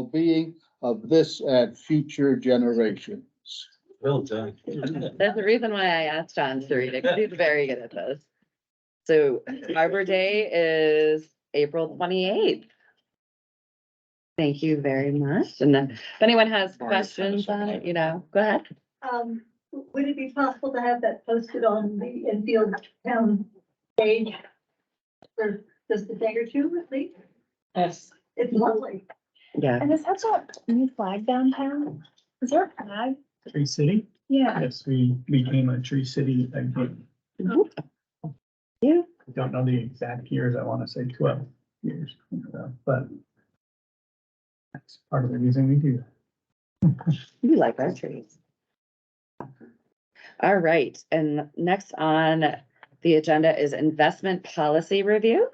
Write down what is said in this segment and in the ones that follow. well-being of this and future generations. Well done. That's the reason why I asked John to read it, 'cause he's very good at this. So Arbor Day is April twenty-eighth. Thank you very much. And then if anyone has Sorry, it's kind of questions on it, you know, go ahead. Um, would it be possible to have that posted on the Enfield Town page? For just a day or two, at least? Yes. It's lovely. Yeah. And is that a new flag downtown? Is there a flag? Tree City? Yeah. Yes, we became a Tree City, I think, You, I don't know the exact years, I want to say twelve years, uh, but that's part of the reason we do. you like our trees. All right, and next on the agenda is investment policy review.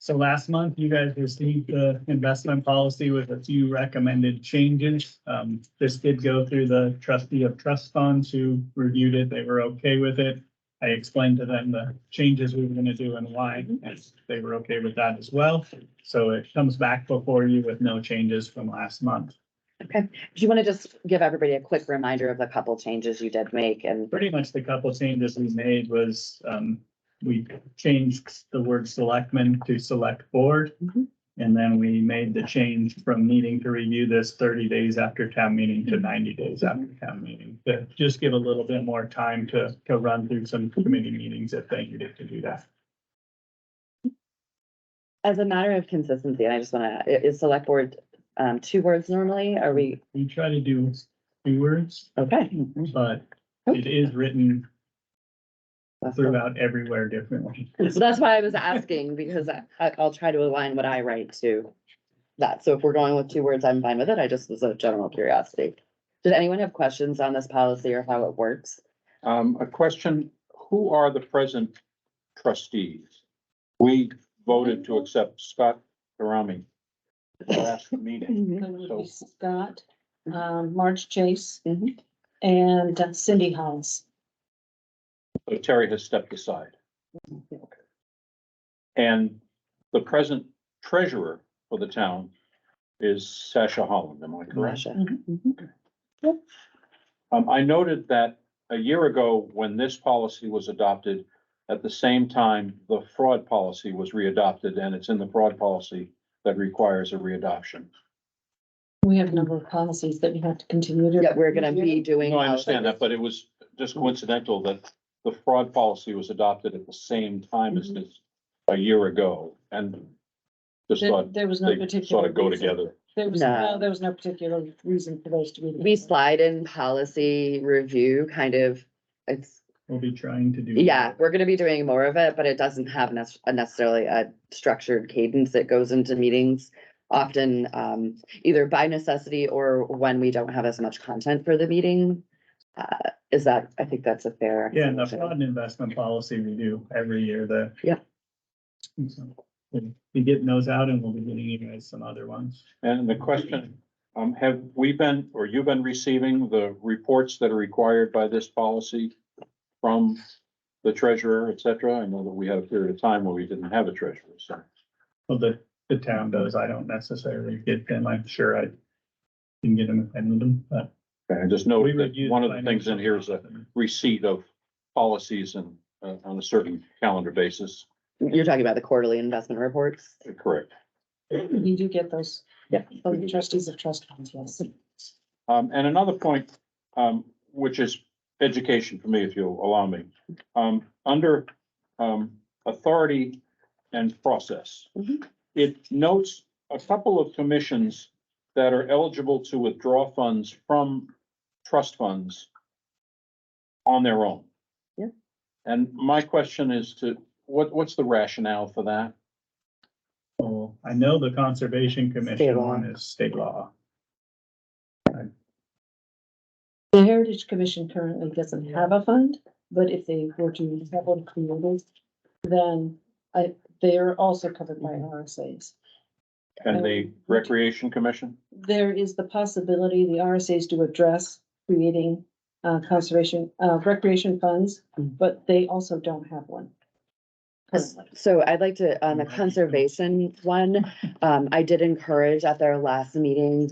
So last month, you guys received the investment policy with a few recommended changes. Um, this did go through the trustee of trust funds who reviewed it. They were okay with it. I explained to them the changes we were gonna do and why, and they were okay with that as well. So it comes back before you with no changes from last month. Do you want to just give everybody a quick reminder of the couple changes you did make and Pretty much the couple changes we made was, um, we changed the word selectmen to select board. Mhm. And then we made the change from needing to review this thirty days after town meeting to ninety days after town meeting. To just give a little bit more time to, to run through some committee meetings if they needed to do that. as a matter of consistency, and I just want to, is select board um, two words normally? Are we, We try to do two words, okay? but it is written That's cool. throughout everywhere differently. So that's why I was asking because I, I- I'll try to align what I write to that. So if we're going with two words, I'm fine with it. I just was a general curiosity. Did anyone have questions on this policy or how it works? Um, a question, who are the present trustees? We voted to accept Scott Karami. at the Last meeting, It would be So- Scott, Mm-hmm. um, Marge Chase Mhm. and uh, Cindy Hollis. so Terry has stepped aside. And the present treasurer for the town is Sasha Holland, am I correct? Russia. Um, I noted that a year ago, when this policy was adopted, at the same time, the fraud policy was readopted, and it's in the fraud policy that requires a readoption. We have a number of policies that we have to continue to. Yeah, we're gonna be doing. No, I understand that, but it was just coincidental that the fraud policy was adopted at the same time as Mm-hmm. this a year ago, and just There, thought there was no they particular. sort of go reason. together. There was, No. no, there was no particular reason for those to be. We slide in policy review kind of, it's We'll be trying to do. Yeah, we're gonna be doing more of it, but it doesn't have nec- a necessarily a structured cadence that goes into meetings. Often, um, either by necessity or when we don't have as much content for the meeting. Uh, is that, I think that's a fair. Yeah, and the explanation. fraud and investment policy we do every year, the. Yeah. So, we'll Be getting those out and we'll be getting you guys some other ones. And the question, um, have we been, or you been receiving the reports that are required by this policy from the treasurer, et cetera? I know that we had a period of time where we didn't have a treasurer, so. Well, the, the town does, I don't necessarily get them, I'm sure I can get them if I need them, but. I just we noted would Oh, that use one of the things in financial here is a supplement. receipt of policies and, uh, on a certain calendar basis, You're talking about the quarterly investment reports? correct? You do get those. Yeah. From the trustees of trust funds, yes. Um, and another point, um, which is education for me, if you'll allow me. Um, under, um, authority and process. Mhm. It notes a couple of commissions that are eligible to withdraw funds from trust funds on their own. Yeah. And my question is to, what, what's the rationale for that? Well, Oh, I know the Conservation State Commission law. one is state law. The Heritage Commission currently doesn't have a fund, but if they were to have one created, then I, they are also covered by RSAs. And the Recreation Commission? There is the possibility the RSAs do address creating uh, conservation, uh, recreation funds, but they also don't have one. So I'd like to, on the Right. conservation one, um, I did encourage at their last meeting